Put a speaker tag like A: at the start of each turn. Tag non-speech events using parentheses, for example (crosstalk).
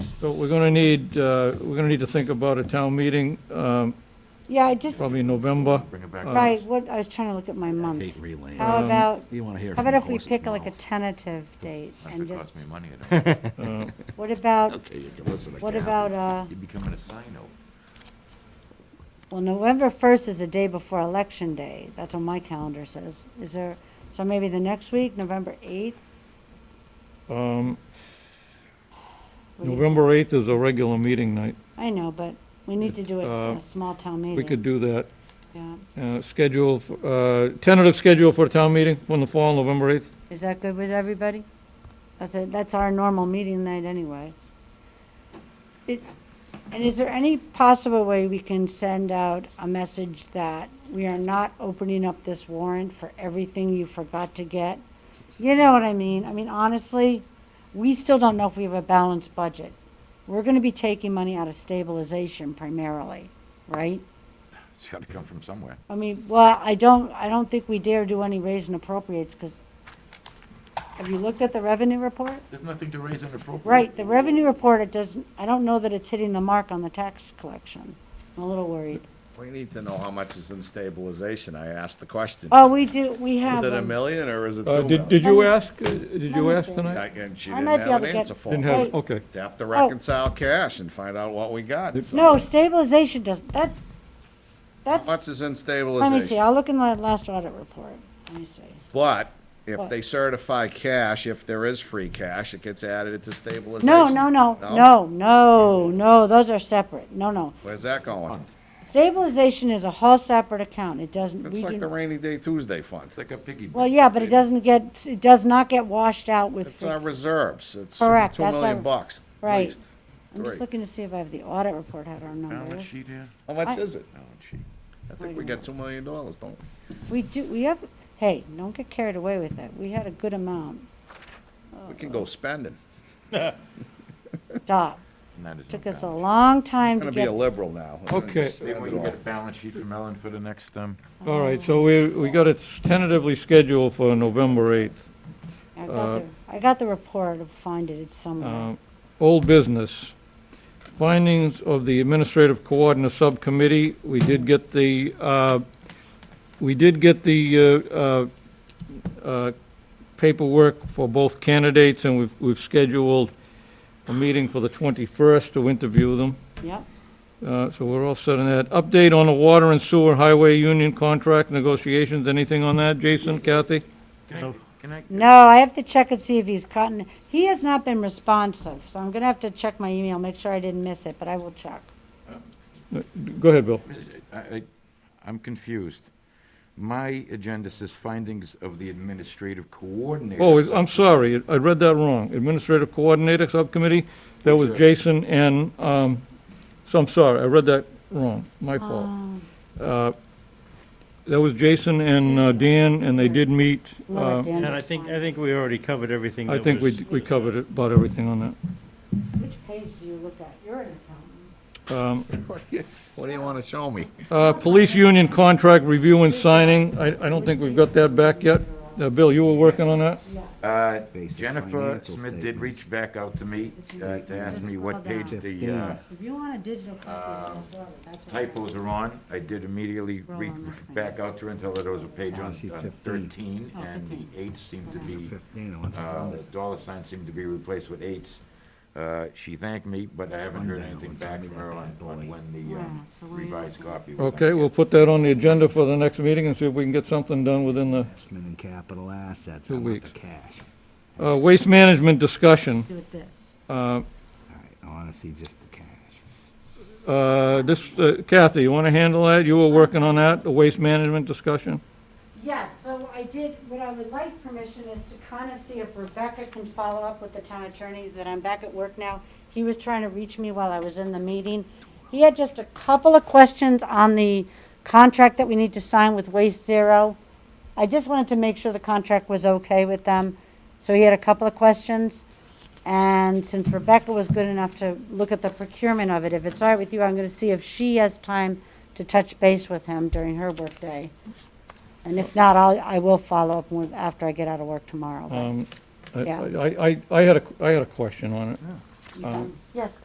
A: So we're going to need, uh, we're going to need to think about a town meeting, um,
B: Yeah, I just,
A: probably in November. Uh,
C: Bring it back.
B: right, what, I was trying to look at my
D: Date
B: months.
D: relaying.
A: Um,
B: How about,
D: You want to hear
B: how
D: from
B: about
D: the
B: if we
D: horse's
B: pick like a
D: mouth.
B: tentative date
C: Not
B: and
C: if it costs
B: just,
C: me money, I
B: (laughs)
C: don't.
B: what about,
D: Okay, you can listen to
B: what
D: Kathy.
B: about, uh,
C: You're becoming a sino.
B: well, November first is the day before election day. That's what my calendar says. Is there, so maybe the next week, November eighth?
A: Um, November 8th is a regular meeting night.
B: I know, but we need to do it
A: Uh,
B: a small town meeting.
A: We could do that.
B: Yeah.
A: Uh, Schedule, f- uh, tentative schedule for a town meeting from the fall, November Uh, 8th.
B: Is that good with everybody? That's it, that's our normal meeting night anyway. It, and is there any possible way we can send out a message that we are not opening up this warrant for everything you forgot to get? You know what I mean? I mean, honestly, we still don't know if we have a balanced budget. We're gonna be taking money out of stabilization primarily, right?
C: It's gotta come from somewhere.
B: I mean, well, I don't, I don't think we dare do any raise and appropriates, because have you looked at the revenue report?
C: There's nothing to raise and appropriate.
B: Right, the revenue report, it doesn't, I don't know that it's hitting the mark on the tax collection. I'm a little worried.
E: We need to know how much is in stabilization. I asked the question.
B: Oh, we do, we have
E: Is it a
B: one.
E: million or is it
A: Uh,
E: two
A: Did
E: million?
A: did you ask, uh, did you
B: Let me
A: ask
B: see.
A: tonight?
E: I- And she
B: I
E: didn't
B: might be
E: have
B: able
E: an
B: to get-
E: answer for
A: Didn't
E: me.
A: have,
B: Wait.
A: okay.
E: To have to reconcile cash and find out what we got. so
B: No, stabilization doesn't, that,
E: How much
B: that's,
E: is in
B: let me see,
E: stabilization?
B: I'll look in the last audit report. Let me see.
E: But if
B: What?
E: they certify cash, if there is free cash, it gets added to stabilization.
B: No, no, no, no, no, no, those are separate. No, no.
E: Where's that going?
B: Stabilization is a whole separate account. It doesn't, we
E: It's
B: do
E: like the rainy day Tuesday fund.
C: It's like a piggy bank.
B: Well, yeah, but it doesn't get, it does not get washed out with,
E: It's
B: free-
E: our reserves. It's two
B: Correct, that's
E: million
B: our-
E: bucks. at
B: Right.
E: least.
B: I'm just
E: Right.
B: looking to see if I have the audit report, had our
C: Balance
B: numbers.
C: sheet here,
E: How much
B: I-
E: is it?
C: balance sheet.
E: I think we got two million dollars, don't we?
B: We do, we have, hey, don't get carried away with it. We had a good amount.
E: We can go spending.
B: Stop.
C: And that is no
B: Took us a
C: balance.
B: long
E: I'm
B: time to
E: gonna be
B: get,
E: a liberal now. I'm gonna
A: Okay.
E: just
C: Maybe
E: spend
C: we
E: it
C: can
E: all.
C: get a balance sheet from Ellen for the next, um,
A: All right, so we, we got it tentatively scheduled for November 8th.
B: I got the, I got the report, I'll find it, it's somewhere.
A: Uh, Old business, findings of the Administrative Coordinator Subcommittee, we did get the, uh, we did get the uh, uh, uh, paperwork for both candidates, and we've- we've scheduled a meeting for the 21st to interview them,
B: Yep,
A: Uh, so we're all set on that. Update on the water and sewer highway union contract negotiations, anything on that, Jason, Kathy?
C: can I, can I?
B: no, I have to check and see if he's gotten, he has not been responsive, so I'm gonna have to check my email, make sure I didn't miss it, but I will check.
A: Go ahead, Bill.
C: I, I, I'm confused. My agenda says findings of the administrative coordinator.
A: Oh, I'm sorry, I read that wrong. Administrative Coordinator Subcommittee, that was Jason and, um, so I'm sorry, I read that wrong, my fault. Uh, That was Jason and uh, Dan, and they did meet.
B: We'll let
A: uh,
B: Dan
F: And I
B: just
F: think,
B: find
F: I
B: it.
F: think we already covered everything.
A: I
F: that
A: think
F: was-
A: we, we covered about everything on
B: Which page do you look at? You're an accountant.
A: that. Um,
E: What do you wanna show me?
A: uh, Police Union Contract Review and Signing, I, I don't think we've got that back yet. Uh, Bill, you were working on that?
C: Uh,
D: Basic
C: Jennifer
D: financial
C: Smith did
D: statements.
C: reach back out to me, uh, to ask me what page the uh,
B: If you want a digital
E: Uh,
B: copy of those orders, that's what I
C: typos are on. I did immediately
B: Scroll
C: reach
B: on this thing.
C: back out to her and tell her there was a page on
D: I see
C: uh,
D: 15.
C: thirteen,
B: Oh,
C: and the
B: 15.
C: eights seemed to be,
D: Fifteen, I want some
C: uh,
D: numbers.
C: dollar signs seemed to be replaced with eights. Uh, She thanked me, but I haven't heard anything back from her on, on when the uh,
B: Wow, so what are you
C: revised copy. was.
A: Okay, we'll put that on the agenda for the next meeting and see if we can get something done within the,
D: Investment in capital assets,
A: Two
D: I want
A: weeks.
D: the cash.
A: uh, Waste Management Discussion.
B: do with this.
A: Uh,
D: All right, I wanna see just the cash.
A: Uh, This, uh, Kathy, you want to handle that? You were working on that, the waste management discussion?
B: Yes, so I did, what I would like permission is to kind of see if Rebecca can follow up with the town attorney, that I'm back at work now. He was trying to reach me while I was in the meeting. He had just a couple of questions on the contract that we need to sign with Waste Zero. I just wanted to make sure the contract was okay with them, so he had a couple of questions. And since Rebecca was good enough to look at the procurement of it, if it's all right with you, I'm going to see if she has time to touch base with him during her workday. And if not, I'll, I will follow up with, after I get out of work tomorrow.
A: Um, I-
B: Yeah.
A: I I- I had a, I had a question on it.
B: You can- Yes,